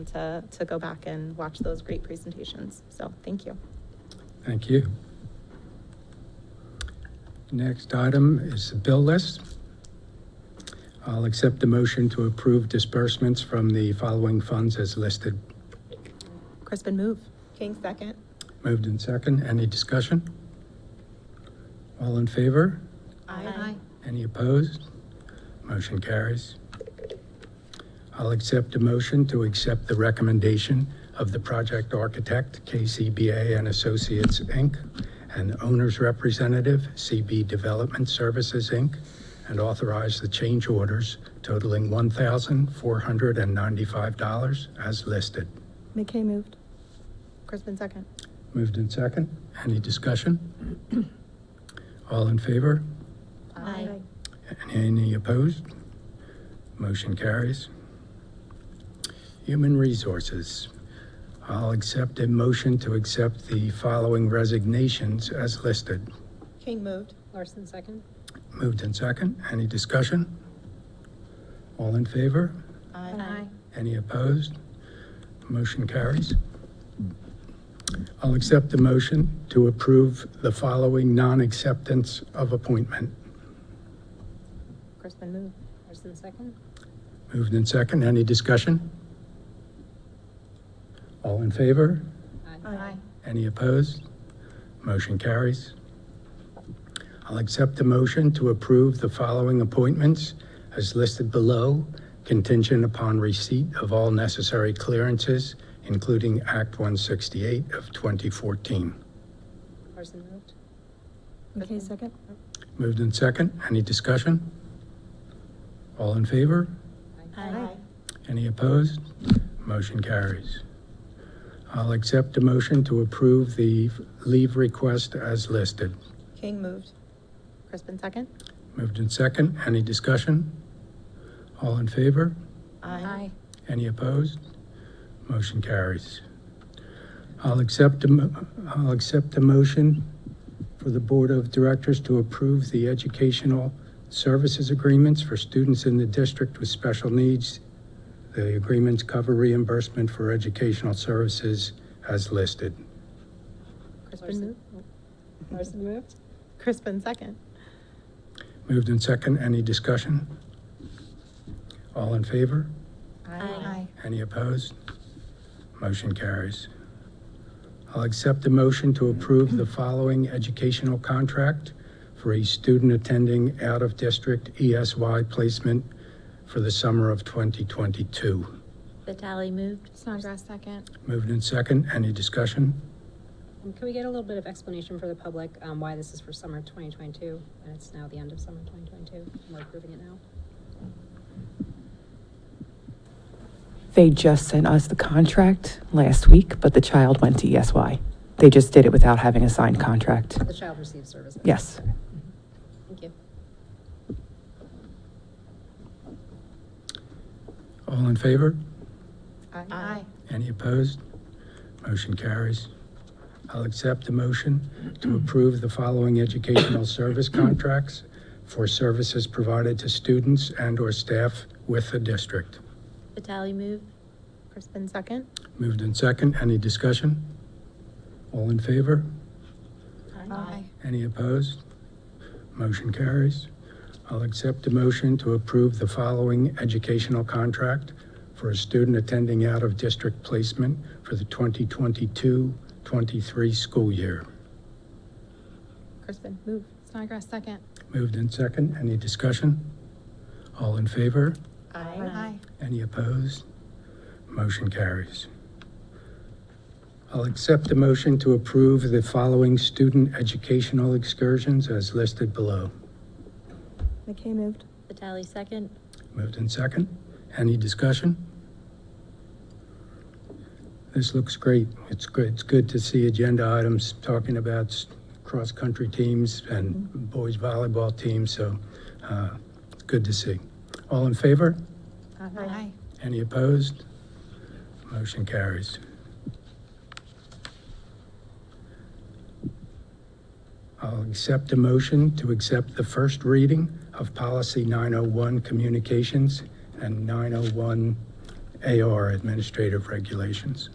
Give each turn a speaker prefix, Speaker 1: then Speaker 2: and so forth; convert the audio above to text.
Speaker 1: to, to go back and watch those great presentations. So thank you.
Speaker 2: Thank you. Next item is the bill list. I'll accept the motion to approve disbursements from the following funds as listed.
Speaker 1: Crispin, move. King, second.
Speaker 2: Moved and second. Any discussion? All in favor?
Speaker 1: Aye.
Speaker 2: Any opposed? Motion carries. I'll accept a motion to accept the recommendation of the project architect, KCBA and Associates, Inc., and owner's representative, CB Development Services, Inc., and authorize the change orders totaling $1,495 as listed.
Speaker 1: McKay, moved. Crispin, second.
Speaker 2: Moved in second. Any discussion? All in favor?
Speaker 1: Aye.
Speaker 2: Any opposed? Motion carries. Human Resources. I'll accept a motion to accept the following resignations as listed.
Speaker 1: King, moved.
Speaker 3: Larson, second.
Speaker 2: Moved and second. Any discussion? All in favor?
Speaker 1: Aye.
Speaker 2: Any opposed? Motion carries. I'll accept the motion to approve the following non-acceptance of appointment.
Speaker 1: Crispin, move.
Speaker 3: Larson, second.
Speaker 2: Moved in second. Any discussion? All in favor?
Speaker 1: Aye.
Speaker 2: Any opposed? Motion carries. I'll accept the motion to approve the following appointments as listed below, contingent upon receipt of all necessary clearances, including Act 168 of 2014.
Speaker 3: Larson moved.
Speaker 1: McKay, second.
Speaker 2: Moved in second. Any discussion? All in favor?
Speaker 1: Aye.
Speaker 2: Any opposed? Motion carries. I'll accept a motion to approve the leave request as listed.
Speaker 1: King, moved. Crispin, second.
Speaker 2: Moved in second. Any discussion? All in favor?
Speaker 3: Aye.
Speaker 2: Any opposed? Motion carries. I'll accept, a mo- I'll accept a motion for the Board of Directors to approve the educational services agreements for students in the district with special needs. The agreements cover reimbursement for educational services as listed.
Speaker 1: Crispin,
Speaker 3: Larson
Speaker 1: moved.
Speaker 3: Larson moved.
Speaker 1: Crispin, second.
Speaker 2: Moved in second. Any discussion? All in favor?
Speaker 1: Aye.
Speaker 2: Any opposed? Motion carries. I'll accept the motion to approve the following educational contract for a student attending out-of-district ESY placement for the summer of 2022.
Speaker 4: Vitale moved.
Speaker 1: Snodgrass, second.
Speaker 2: Moved in second. Any discussion?
Speaker 3: Um, Can we get a little bit of explanation for the public um, why this is for summer 2022? And it's now the end of summer 2022, and we're approving it now.
Speaker 5: They just sent us the contract last week, but the child went to ESY. They just did it without having a signed contract.
Speaker 3: The child receives services.
Speaker 5: Yes.
Speaker 3: Okay. Thank you.
Speaker 2: All in favor?
Speaker 1: Aye.
Speaker 2: Any opposed? Motion carries. I'll accept the motion to approve the following educational service contracts for services provided to students and/or staff with the district.
Speaker 4: Vitale moved.
Speaker 1: Crispin, second.
Speaker 2: Moved in second. Any discussion? All in favor?
Speaker 1: Aye.
Speaker 2: Any opposed? Motion carries. I'll accept a motion to approve the following educational contract for a student attending out-of-district placement for the 2022-23 school year.
Speaker 1: Crispin, move. Snodgrass, second.
Speaker 2: Moved in second. Any discussion? All in favor?
Speaker 1: Aye.
Speaker 2: Any opposed? Motion carries. I'll accept the motion to approve the following student educational excursions as listed below.
Speaker 1: McKay, moved.
Speaker 4: Vitale second.
Speaker 2: Moved in second. Any discussion? This looks great. It's good, it's good to see agenda items talking about s- cross-country teams and boys volleyball teams, so uh, it's good to see. All in favor?
Speaker 1: Aye.
Speaker 2: Any opposed? Motion carries. I'll accept a motion to accept the first oh reading of Policy 901 Communications and 901 AR Administrative Regulations.